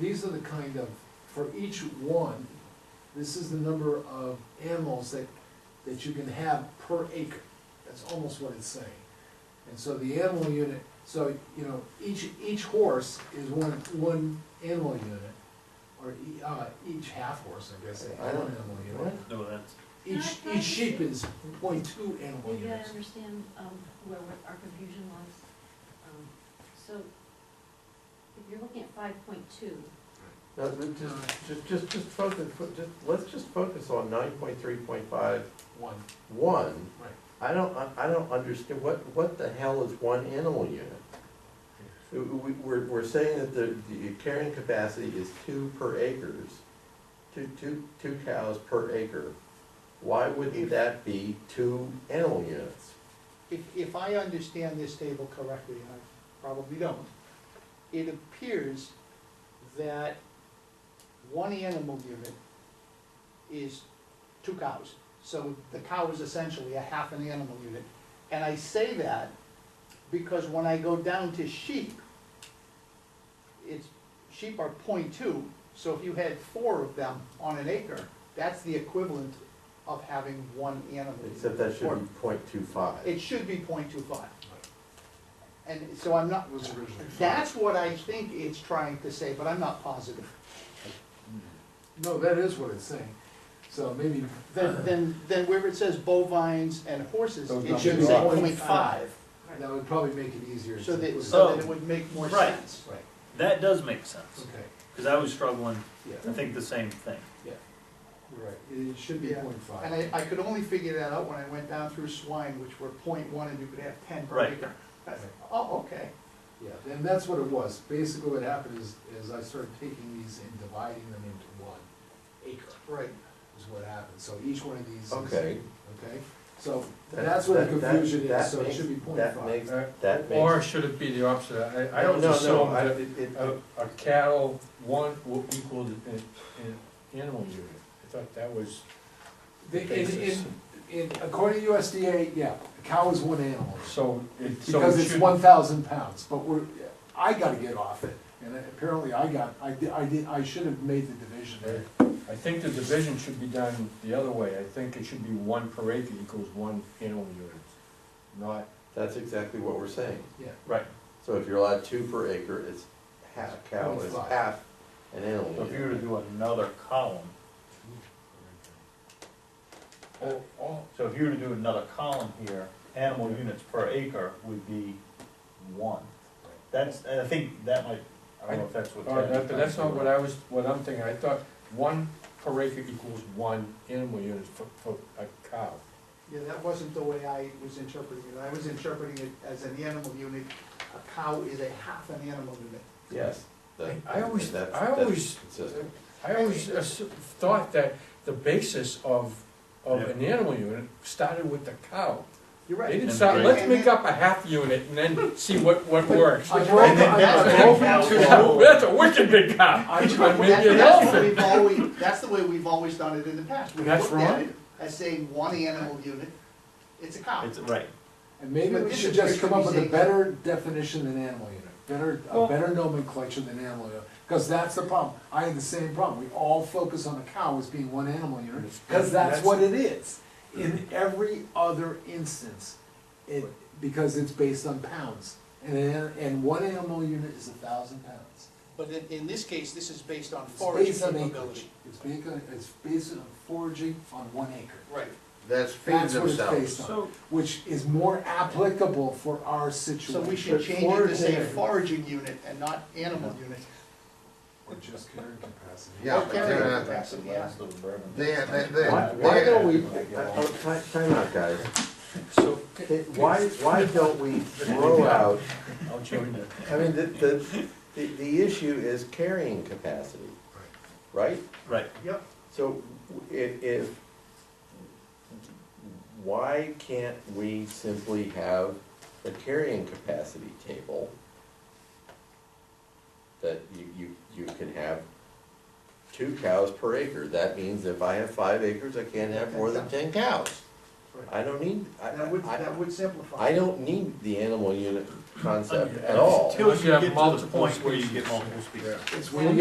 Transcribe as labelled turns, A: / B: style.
A: These are the kind of, for each one, this is the number of animals that, that you can have per acre. That's almost what it's saying. And so the animal unit, so, you know, each, each horse is one, one animal unit, or e- uh, each half horse, I guess, is
B: I
A: one
B: don't-
A: animal unit.
C: No, that's,
A: Each, each sheep is point two animal
D: We gotta
A: units.
D: understand, um, where we- our confusion was. Um, So, if you're looking at five point two,
B: No, th- just, just, just, just focus, fo- just, let's just focus on nine point three point five,
A: One,
B: one.
A: right.
B: I don't, I- I don't understand, what, what the hell is one animal unit? We, we- we're, we're saying that the, the carrying capacity is two per acres, two, two, two cows per acre. Why wouldn't that be two animal units?
E: If, if I understand this table correctly, and I probably don't, it appears that one animal unit is two cows. So the cow is essentially a half an animal unit. And I say that because when I go down to sheep, it's, sheep are point two, so if you had four of them on an acre, that's the equivalent of having one animal. unit.
B: Except that
E: Or-
B: should be point two five.
E: it should be 0.25, And so I'm not,
A: Was originally.
E: that's what I think it's trying to say, but I'm not positive.
A: No, that is what it's saying. So maybe,
E: Then, then, then where it says bovines and horses,
F: Uh-huh. Those
E: it should
F: numbers
E: say
A: are-
E: 0.5,
A: that would probably make it easier. to-
E: so that, so that it
C: Oh.
E: would make more
C: Right.
E: sense.
A: Right,
C: that does make sense,
A: okay,
C: because I was struggling, I
A: yeah,
C: think the same thing.
A: you're right. It should be
E: Yeah.
A: point
E: And
A: five.
E: I, I could only figure that out when I went down through swine, which were 0.1, and you could have ten per
C: Right.
E: acre. I said, Oh, okay,
A: Yeah, and that's what it was. Basically what happened is, is I started taking these and dividing them into one acre
E: right,
A: is what happened. So each one of these is.
B: Okay.
A: Okay, so
B: That-
A: that's where the
B: that- that-
A: confusion
B: that
A: is, so it
B: makes-
A: should be point
B: that
A: five.
B: makes-
F: Uh,
B: That makes.
F: Or should it be the opposite? I, I don't
B: No, no,
F: assume
B: I-
F: that Oh.
B: it- it-
F: a, a cattle, one will equal an, an animal unit. I thought that was,
A: The- In,
F: basis.
A: in, in, according to USDA, yeah, a cow is one animal.
F: so it, so
A: Because
F: it
A: it's
F: should.
A: one thousand pounds, but we're, I gotta get off it, and apparently I got, I did, I did, I should have made the division there.
F: I think the division should be done the other way. I think it should be one per acre equals one animal unit, not.
B: That's exactly what we're saying.
A: Yeah,
F: Right.
B: So if you're allowed two per acre, it's half, cow is
A: 25.
B: half an animal.
C: So if you
B: unit.
C: were to do another column,
F: Oh, oh,
C: so if you were to do another column here, animal units per acre would be one. That's, and I think that might, I don't know if that's what.
F: all right,
C: Ted's
F: that- but that's not
C: trying
F: what I was, what I'm thinking. I thought one per acre equals one animal unit for, for a cow.
E: yeah, that wasn't the way I was interpreting it, I was interpreting it as an animal unit, a cow is a half an animal unit.
B: Yes. that-
F: I always-
B: that's-
F: I
B: that's
F: always-
B: consistent.
F: I always assu- thought that the basis of, of an animal unit started with the cow.
E: You're
F: They
E: right.
F: didn't start, let's make up a half unit and then see what, what works.
A: I'm
E: And
A: open,
E: then that's
A: I'm open
C: what-
A: to,
F: That's a wicked big cow.
A: I'm
F: But
A: trying,
F: maybe
E: That-
F: an
E: That's the way
F: elephant.
E: we've always, that's the way we've always done it in the past. We've
F: That's
E: looked at
F: wrong.
E: it as saying one animal unit, it's a
C: to-
E: cow.
C: It's, right,
A: and maybe we should just come up with a better definition than animal unit, better, a
C: Well-
A: better nomenclature than animal unit. Cause that's the problem, I had the same problem, we all focus on the cow as being one animal unit, cause that's
F: That's-
A: what it is. In every other instance, it, because it's based on pounds, and, an- and one animal unit is a thousand pounds.
E: But in, in this case, this is based on
A: It's based on acreage. It's based on, it's based on foraging on one acre.
E: Right.
B: That's
A: That's what it's based on,
C: so,
A: which is more applicable for our
E: So
A: situation.
E: we should change it to say foraging unit and not animal unit.
A: Or just carrying capacity.
G: Yeah,
E: Or
G: but
E: carrying
G: they're not,
E: capacity, yeah.
G: they, they, they.
B: Why, why don't we, uh, oh, ti- time out, guys.
F: So,
B: Okay, Why, why don't we throw out,
C: I'll change it.
B: I mean, the, the, the, the issue is carrying capacity, right?
C: Right,
E: Yep.
B: So if, if, why can't we simply have a carrying capacity table? That you, you, you can have two cows per acre, that means if I have five acres, I can't have more than ten cows. I don't need, I,
E: That would,
B: I,
E: that would simplify.
B: I don't need the animal unit concept at all.
C: until you
F: You have
C: get to the
F: multiple
C: point where you get
F: species.
C: multiple species.
A: It's
E: And
A: when